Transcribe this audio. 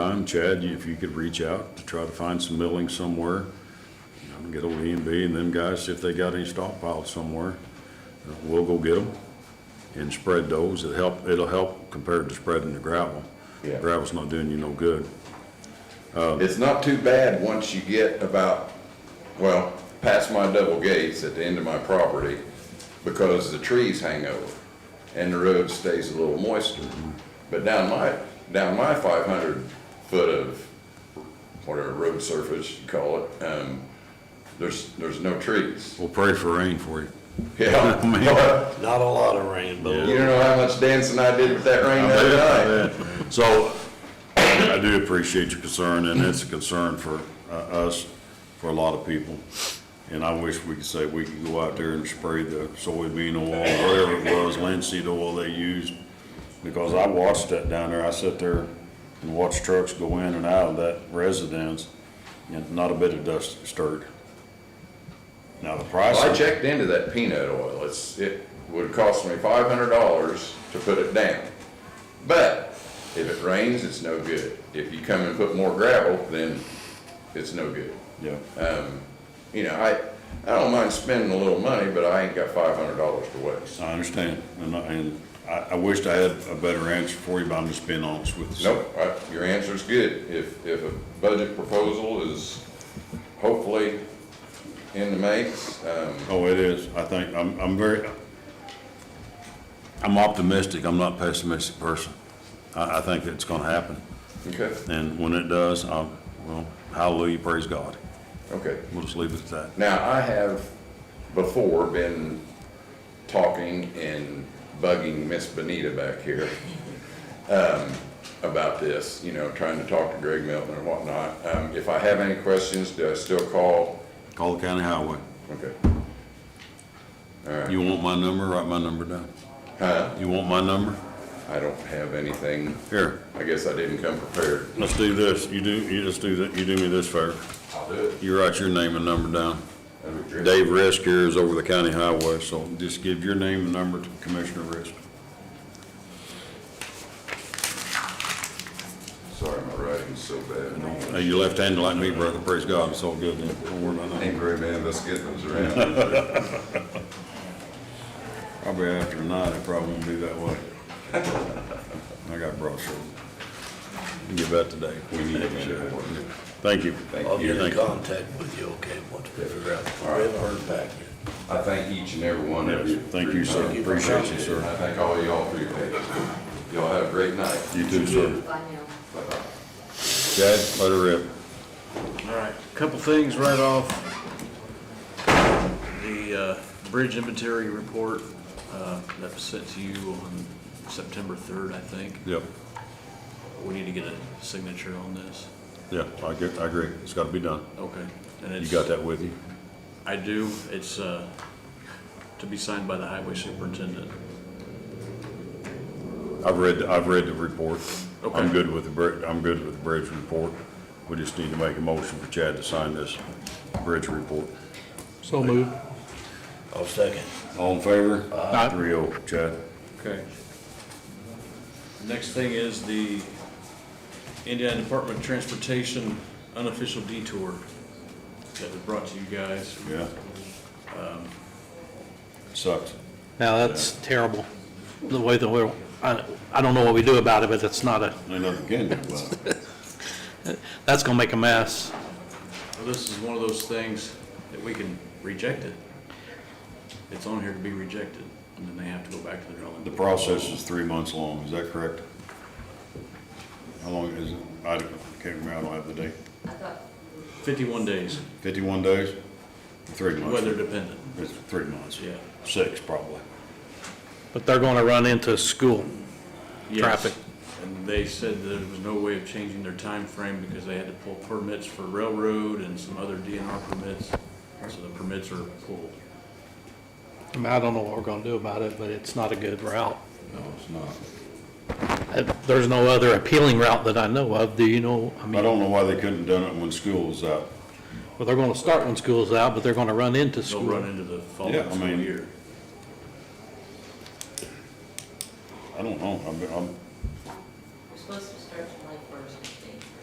time, Chad, you- if you could reach out to try to find some milling somewhere, you know, get old E and B and them guys, if they got any stockpiled somewhere, uh, we'll go get them and spread those. It'll help, it'll help compared to spreading the gravel. Yeah. Gravel's not doing you no good. It's not too bad once you get about, well, past my double gates at the end of my property, because the trees hang over and the road stays a little moister. But down my, down my five hundred foot of whatever road surface you call it, um, there's, there's no trees. We'll pray for rain for you. Yeah. Not a lot of rain, but a Yeah. You don't know how much dancing I did with that rain the other night. So I do appreciate your concern, and it's a concern for uh, us, for a lot of people. And I wish we could say we could go out there and spray the soybean oil, whatever it was, linseed oil they used. Because I watched that down there. I sat there and watched trucks go in and out of that residence, and not a bit of dust stirred. Now, the price. Well, I checked into that peanut oil, it's, it would cost me five hundred dollars to put it down. But if it rains, it's no good. If you come and put more gravel, then it's no good. Yeah, You know, I, I don't mind spending a little money, but I ain't got five hundred dollars to waste. I understand. And I, and I I wished I had a better answer for you, but I'm just being honest with you. Nope, I, your answer's good. If, if a budget proposal is hopefully in the makes, um, Oh, it is. I think, I'm, I'm very, I'm optimistic. I'm not pessimistic person. I, I think it's gonna happen. okay, And when it does, I, well, hallelujah, praise God. okay. We'll just leave it at that. Now, I have before been talking and bugging Miss Benita back here um, about this, you know, trying to talk to Greg Milton and whatnot. Um, If I have any questions, do I still call? Call the county highway. Okay. You want my number? Write my number down. Huh? You want my number? I don't have anything. Here, I guess I didn't come prepared. let's do this. You do, you just do that. You do me this favor. I'll do You write your name and number down. it. Dave Risk here is over the county highway, so just give your name and number to Commissioner Risk. Sorry, my writing's so bad. Hey, you left-handed like me, brother. Praise God. It's all good. then. Don't worry about that. Ain't very many of us getting those around. Probably after tonight, it probably won't be that way. I got broad shoulders. Give that today. We need it. Thank you. I'll Yeah, get in thank you. contact with you, okay, once we figure out, I haven't heard back yet. I thank each and every one of you. Yes, thank you, sir. Thank you. Appreciate you, sir. I thank all of y'all for your patience. Y'all have a great night. You too, sir. Bye now. Bye-bye. Chad, let her rip. All right, couple things right off. The uh, bridge inventory report uh, that was sent to you on September 3rd, I think. Yep, We need to get a signature on this. yeah, I get, I agree. It's gotta be done. Okay. and You it's- got that with you? I do. It's uh, to be signed by the highway superintendent. I've read, I've read the report. I'm Okay. good with the, bri- I'm good with the bridge report. We just need to make a motion for Chad to sign this bridge report. So moved. I'll second. All in favor? Aye. Three oh, Chad. Okay. Next thing is the Indiana Department of Transportation unofficial detour that was brought to you guys. Yeah. Um, Sucks. Now, that's terrible, the way that we're, I, I don't know what we do about it, but it's not a, Ain't nothing can do about it. that's gonna make a mess. Well, This is one of those things that we can reject it. It's on here to be rejected, and then they have to go back to the drawing The board. process is three months long, is that correct? How long is it? I don't- can't remember, I don't have the date. Fifty-one days, Fifty-one days? Three months. weather dependent, It's three months. yeah. Six, probably. But they're gonna run into school. Yes. Traffic. And they said that there was no way of changing their time frame because they had to pull permits for railroad and some other DNR permits, so the permits are pulled. I mean, I don't know what we're gonna do about it, but it's not a good route. No, it's not. Uh, There's no other appealing route that I know of, do you know? I I mean, don't know why they couldn't have done it when school was out. well, they're gonna start when school's out, but they're gonna run into They'll school. run into the Yeah, I following school mean- year. I don't know, I'm, I'm, We're supposed to